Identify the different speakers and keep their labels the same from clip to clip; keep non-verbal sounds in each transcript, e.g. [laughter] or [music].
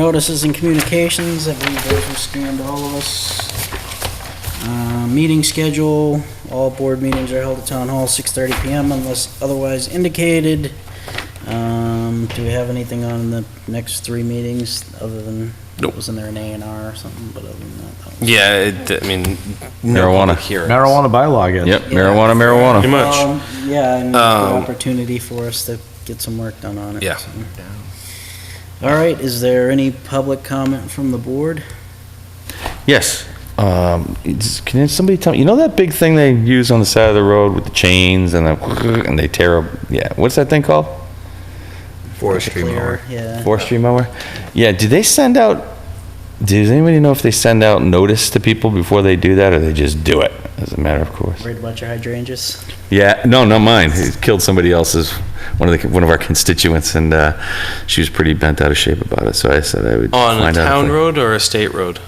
Speaker 1: Notices and communications, I believe those will stand all of us. Uh, Meeting schedule, all board meetings are held at Town Hall, 6:30 PM unless otherwise indicated. Um, Do we have anything on the next three meetings other than,
Speaker 2: Nope.
Speaker 1: wasn't there an A and R or something, but other than that, that? was-
Speaker 2: Yeah, it, I mean,
Speaker 3: Marijuana.
Speaker 2: Here.
Speaker 4: Marijuana bylaw again.
Speaker 3: Yep, marijuana,
Speaker 2: Pretty
Speaker 3: marijuana.
Speaker 2: much.
Speaker 1: Um, Yeah, and the
Speaker 2: Um,
Speaker 1: opportunity for us to get some work done on it.
Speaker 2: Yeah.
Speaker 1: so. All right, is there any public comment from the board?
Speaker 3: Yes. Um, it's- can somebody tell me? You know that big thing they use on the side of the road with the chains and the and they tear up? Yeah, what's that thing called?
Speaker 2: Forestry
Speaker 1: Clear, Yeah.
Speaker 3: Forestry mower. Yeah. Do they send out? Does anybody know if they send out notice to people before they do that, or they just do it as a matter of course?
Speaker 1: Worried about your hydrangeas?
Speaker 3: Yeah. No, not mine. It killed somebody else's. One of the one of our constituents, and uh, she was pretty bent out of shape about it. So I said I would
Speaker 2: On a
Speaker 3: find out if
Speaker 2: town
Speaker 3: they-
Speaker 2: road or a state road?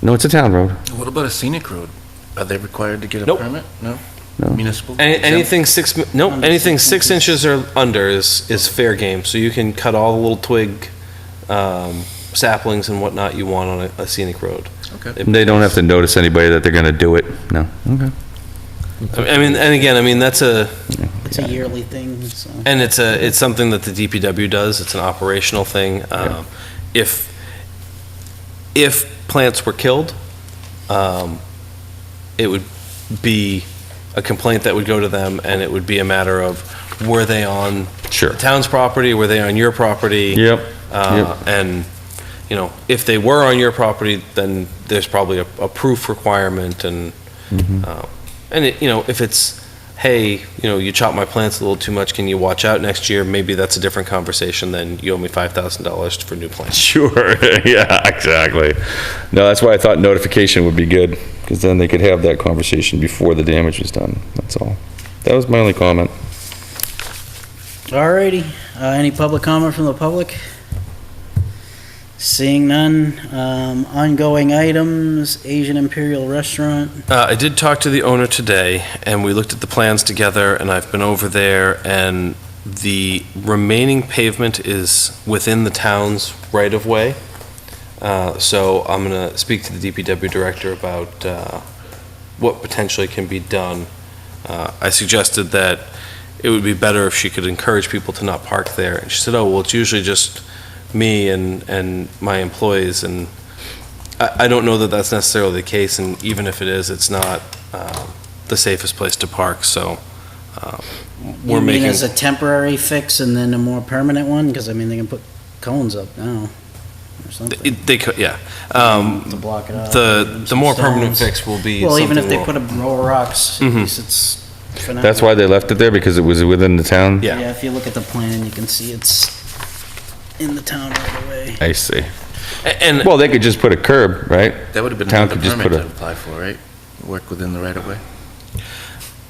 Speaker 3: No, it's a town road.
Speaker 5: What about a scenic road? Are they required to get a
Speaker 2: Nope.
Speaker 5: permit? No?
Speaker 3: No.
Speaker 5: Municipal?
Speaker 2: Any,
Speaker 5: Exempt?
Speaker 2: anything six, mi- nope,
Speaker 1: Under
Speaker 2: anything
Speaker 1: six
Speaker 2: six inches or under is, is fair game. So you can cut all the little twig, um, saplings and whatnot you want on a- a scenic road.
Speaker 5: Okay.
Speaker 2: It-
Speaker 3: They don't have to notice anybody that they're going to do it. No. Okay.
Speaker 2: I mean, and again, I mean, that's a,
Speaker 1: It's a yearly thing, so.
Speaker 2: And it's a, it's something that the DPW does, it's an operational thing. Um, If, if plants were killed, um, it would be a complaint that would go to them, and it would be a matter of, were they on
Speaker 3: Sure.
Speaker 2: the town's property, were they on your property?
Speaker 3: Yep.
Speaker 2: Uh, And, you know, if they were on your property, then there's probably a, a proof requirement and, uh, and it, you know, if it's, hey, you know, you chop my plants a little too much, can you watch out next year? Maybe that's a different conversation than you owe me five thousand dollars for new plants.
Speaker 3: Sure. [laughs] yeah, exactly. No, that's why I thought notification would be good because then they could have that conversation before the damage was done. That's all. That was my only comment.
Speaker 1: Alrighty, uh, any public comment from the public? Seeing none, um, ongoing items, Asian Imperial Restaurant,
Speaker 2: Uh, I did talk to the owner today, and we looked at the plans together, and I've been over there, and the remaining pavement is within the town's right-of-way. Uh, So I'm going to speak to the DPW director about uh, what potentially can be done. Uh, I suggested that it would be better if she could encourage people to not park there, and she said, oh, well, it's usually just me and, and my employees, and I, I don't know that that's necessarily the case, and even if it is, it's not uh, the safest place to park, so uh,
Speaker 1: you
Speaker 2: we're
Speaker 1: mean
Speaker 2: making,
Speaker 1: as a temporary fix and then a more permanent one? Cause I mean, they can put cones up now or something
Speaker 2: it- they could, yeah.
Speaker 1: to
Speaker 2: Um,
Speaker 1: block it off.
Speaker 2: The, the more permanent
Speaker 1: Stones.
Speaker 2: fix will be
Speaker 1: Well, even if
Speaker 2: something
Speaker 1: they
Speaker 2: we'll-
Speaker 1: put a row of rocks, at
Speaker 2: Mhm.
Speaker 1: least it's. for now.
Speaker 3: That's why they left it there because it was within the town.
Speaker 2: Yeah.
Speaker 1: Yeah, if you look at the plan, you can see it's in the town right away.
Speaker 3: I see.
Speaker 2: a- And,
Speaker 3: Well, they could just put a curb, right?
Speaker 5: That would have been
Speaker 3: Town
Speaker 5: another
Speaker 3: could just
Speaker 5: permit
Speaker 3: put
Speaker 5: to
Speaker 3: a-
Speaker 5: apply for, right? Work within the right of way?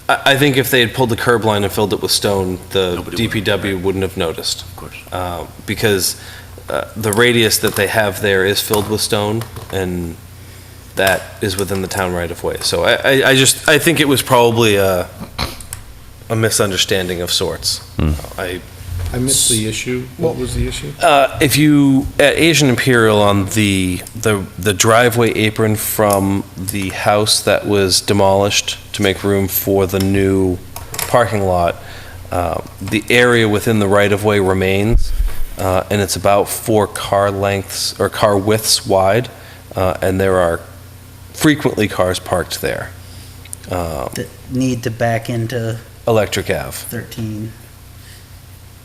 Speaker 2: I, I think if they had pulled the curb line and filled it with stone, the
Speaker 5: Nobody would have-
Speaker 2: DPW wouldn't have noticed.
Speaker 5: Of course.
Speaker 2: Uh, Because uh, the radius that they have there is filled with stone, and that is within the town right-of-way. So I, I I just, I think it was probably a, a misunderstanding of sorts. I,
Speaker 6: I missed the issue. What was the issue?
Speaker 2: uh, If you, at Asian Imperial on the, the the driveway apron from the house that was demolished to make room for the new parking lot, uh, the area within the right-of-way remains, uh, and it's about four car lengths, or car widths wide, uh, and there are frequently cars parked there. Uh,
Speaker 1: That need to back into
Speaker 2: Electric Ave.
Speaker 1: thirteen.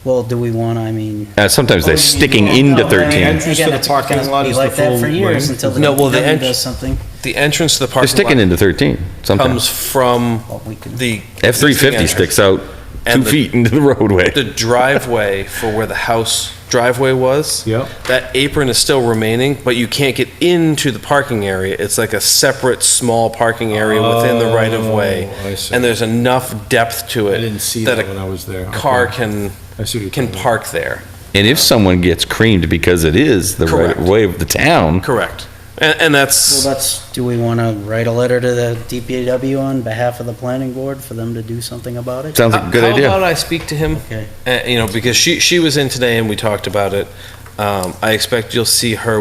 Speaker 1: Well, do we want, I mean.
Speaker 3: Uh, sometimes
Speaker 1: Oh,
Speaker 3: they're sticking into
Speaker 1: no, I mean,
Speaker 3: 13.
Speaker 6: Entrance to
Speaker 1: again,
Speaker 6: the
Speaker 1: it's gonna
Speaker 6: parking lot
Speaker 1: be
Speaker 6: is
Speaker 1: like
Speaker 6: the
Speaker 1: that
Speaker 6: full
Speaker 1: for years
Speaker 6: length.
Speaker 1: Until the
Speaker 2: No, well, the
Speaker 1: DPW
Speaker 2: entr-
Speaker 1: does something.
Speaker 2: The entrance to the
Speaker 3: They're
Speaker 2: parking lot.
Speaker 3: sticking into 13
Speaker 2: Comes
Speaker 3: sometimes.
Speaker 2: from
Speaker 1: Well, we can-
Speaker 2: the. existing
Speaker 3: F-350
Speaker 2: entrance.
Speaker 3: sticks out two
Speaker 2: And the-
Speaker 3: feet into the [laughs] roadway.
Speaker 2: the driveway for where the house driveway was.
Speaker 6: Yep.
Speaker 2: That apron is still remaining, but you can't get into the parking area. It's like a separate small parking area within the right of way.
Speaker 6: Oh, I see.
Speaker 2: And there's enough depth to
Speaker 6: I
Speaker 2: it.
Speaker 6: didn't see that when I was there.
Speaker 2: a car
Speaker 6: Okay.
Speaker 2: can,
Speaker 6: I see what you're
Speaker 2: can
Speaker 6: talking about.
Speaker 2: park there.
Speaker 3: And if someone gets creamed because it is the right
Speaker 2: Correct.
Speaker 3: way of the town,
Speaker 2: Correct. And, and
Speaker 1: Well,
Speaker 2: that's,
Speaker 1: that's, do we want to write a letter to the DPW on behalf of the planning board for them to do something about it?
Speaker 3: sounds like a good
Speaker 2: how
Speaker 3: idea.
Speaker 2: about I speak to him?
Speaker 1: Okay.
Speaker 2: Uh, you know, because she, she was in today and we talked about it. Um, I expect you'll see her